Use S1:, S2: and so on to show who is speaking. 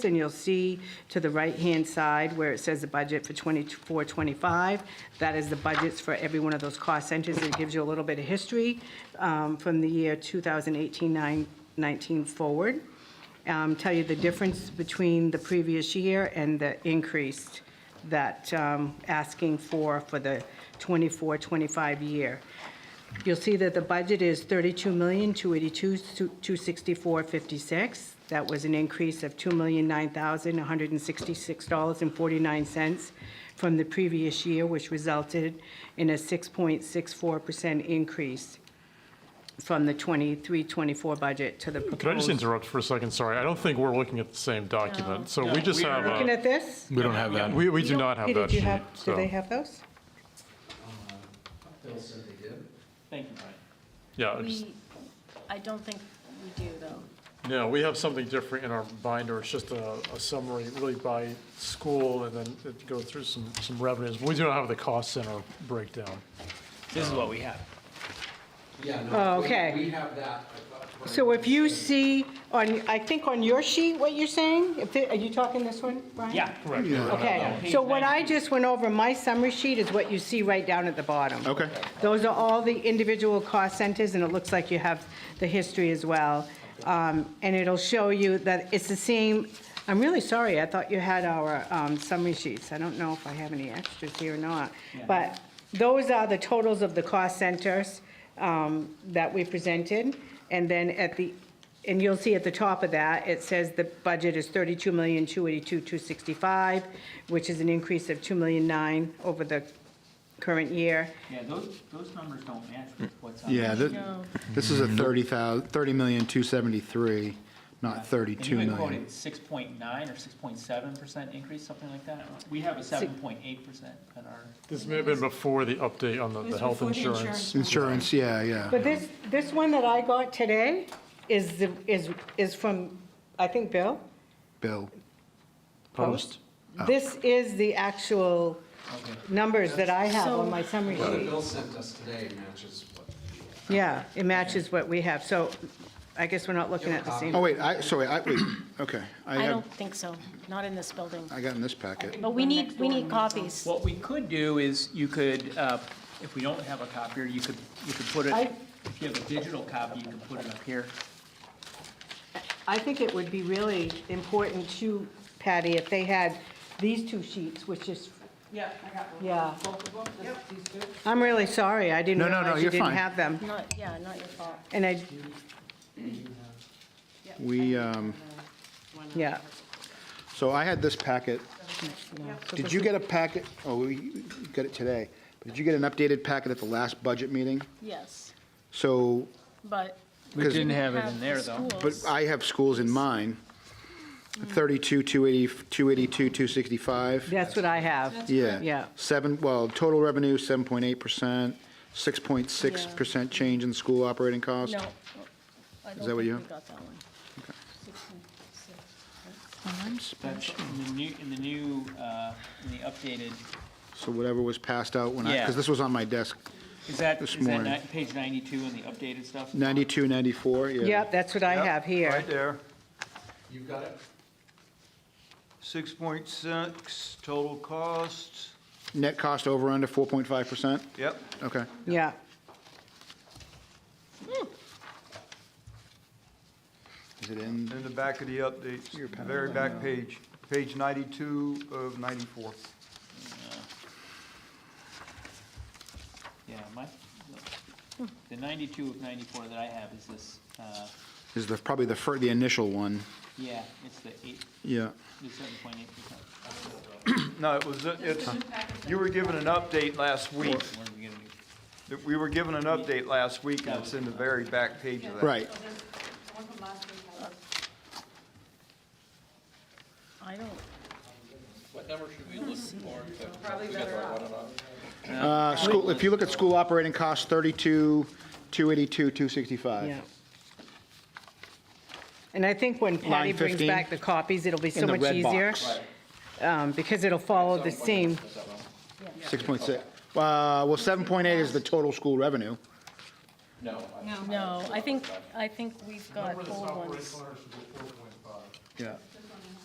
S1: and you'll see to the right-hand side where it says the budget for 24, 25, that is the budgets for every one of those cost centers. It gives you a little bit of history um, from the year 2018, 9 19 forward. Um, Tell you the difference between the previous year and the increased that um, asking for, for the 24, 25 year. You'll see that the budget is $32,282,264.56. That was an increase of $2,009,166.49 from the previous year, which resulted in a 6.64% increase from the 23-24 budget to the proposed.
S2: Can I just interrupt for a second? Sorry, I don't think we're looking at the same document. So we just have,
S1: Looking
S2: a-
S1: at this?
S3: We don't have that.
S2: we, we do not have
S1: Peter,
S2: that
S1: do you
S2: sheet.
S1: have, do
S2: so-
S1: they have those?
S4: Bill said they did.
S5: Thank you, Brian.
S2: Yeah, I just-
S6: We, I don't think we do, though.
S2: no, we have something different in our binder. It's just a, a summary really by school and then it goes through some, some revenues. We do not have the cost center breakdown.
S5: This is what we have.
S4: Yeah,
S1: Oh,
S4: no, we,
S1: okay.
S4: we have that. I thought Brian
S1: So if
S4: was
S1: you
S4: saying-
S1: see on, I think on your sheet, what you're saying, if, they- are you talking this one, Brian?
S5: Yeah,
S2: Correct.
S1: Okay, so what I just went over, my summary sheet is what you see right down at the bottom.
S3: Okay.
S1: Those are all the individual cost centers, and it looks like you have the history as well. Um, And it'll show you that it's the same, I'm really sorry, I thought you had our um, summary sheets. I don't know if I have any extras here or not. But those are the totals of the cost centers um, that we presented. And then at the, and you'll see at the top of that, it says the budget is thirty-two million, two eighty-two, two sixty-five, which is an increase of two million nine over the current year.
S5: Yeah, those, those numbers don't match with what's on.
S3: Yeah,
S5: the
S3: thi- this is a
S5: Mm-hmm.
S3: 30,000, 30,273, not 32
S5: And you had
S3: million.
S5: quoted six point nine or six point seven percent increase, something like that. We have a seven point eight percent in our.
S2: This may have been before the update on the, the health insurance.
S3: Insurance, yeah, yeah.
S1: But this, this one that I got today is, the- is, is from, I think, Bill? Oh.
S3: Bill,
S2: Post.
S1: This is the actual
S5: Okay.
S1: numbers that I have on my summary
S4: What
S1: sheet.
S4: Bill sent us today matches what. we have.
S1: Yeah, it matches what we have, so I guess we're not looking at the
S3: oh,
S1: same.
S3: wait, I, sorry, I, wait, okay. I
S6: I
S3: have,
S6: don't think so, not in this building.
S3: I got in this packet.
S6: But we need, we need copies.
S5: What we could do is you could, uh, if we don't have a copier, you could, you could put it,
S1: I-
S5: if you have a digital copy, you can put it up here.
S1: I think it would be really important to Patty if they had these two sheets, which is,
S7: Yeah, I got one.
S1: yeah.
S7: Both of them, this- these two?
S1: I'm really sorry, I didn't
S3: No, no, no,
S1: realize you
S3: you're
S1: didn't
S3: fine.
S1: have them.
S6: Not, yeah, not your fault.
S1: And I,
S3: We, um,
S1: yeah.
S3: so I had this packet. Did you get a packet, oh, you got it today. Did you get an updated packet at the last budget meeting?
S6: Yes,
S3: So,
S6: but.
S5: We
S3: 'Cause-
S5: didn't have it
S6: have
S5: in there,
S6: the
S5: though.
S3: but
S6: schools.
S3: I have schools in mine, 32, 280, 282, 265.
S1: That's what I have.
S3: Yeah.
S1: Yeah.
S3: Seven, well, total revenue, seven point eight percent, six point six percent change in school operating cost.
S6: No. I
S3: that
S6: don't
S3: what you
S6: think We
S3: have?
S6: got that one. 16,
S5: That's in the new, in the new, uh, in the updated,
S3: So whatever was passed out when I,
S5: Yeah.
S3: because this was on my desk,
S5: is that,
S3: This
S5: is that
S3: morning.
S5: ni- page ninety-two in the updated stuff?
S3: ninety-two, ninety-four, yeah.
S1: Yep, that's what I
S8: Yep,
S1: have here.
S8: Right there,
S4: You've got it?
S8: six point six, total cost,
S3: Net cost over under four point five percent,
S8: yep.
S3: okay.
S1: Yeah.
S3: Is it in,
S8: In the back of the updates,
S3: Your pad.
S8: very back page, page ninety-two of ninety-four.
S5: Yeah, my, the ninety-two of ninety-four that I have is this, uh,
S3: is the, probably the fir, the initial one,
S5: yeah, it's the eight,
S3: yeah.
S5: the seven point eight percent.
S8: No, it was, it's, you were given an update last week.
S5: What are we gonna do?
S8: We were given an update last week, and it's in the very back page of that.
S3: Right,
S7: So there's the one from last week, I was-
S6: I don't,
S7: probably better off.
S3: uh, school, if you look at school operating costs, thirty-two, two eighty-two, two sixty-five.
S1: Yeah. And I think when Patty
S3: Line
S1: brings
S3: 15.
S1: back the copies, it'll be so
S3: In the
S1: much
S3: red
S1: easier.
S3: box.
S1: um, Because it'll follow the same,
S3: Six point six, uh, well, seven point eight is the total school revenue.
S6: no, I think, I think we've got old ones.
S3: Yeah.